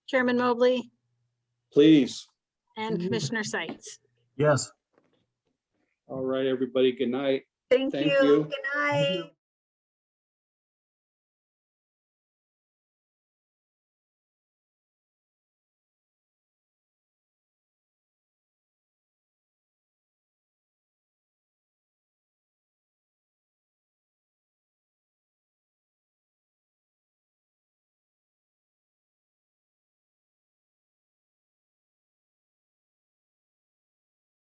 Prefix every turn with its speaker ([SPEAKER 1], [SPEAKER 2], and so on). [SPEAKER 1] Chairman Mobley
[SPEAKER 2] please.
[SPEAKER 1] and Commissioner Sights.
[SPEAKER 3] Yes.
[SPEAKER 2] All right, everybody, good night.
[SPEAKER 4] Thank
[SPEAKER 2] Thank
[SPEAKER 4] you.
[SPEAKER 2] you.
[SPEAKER 4] Good night.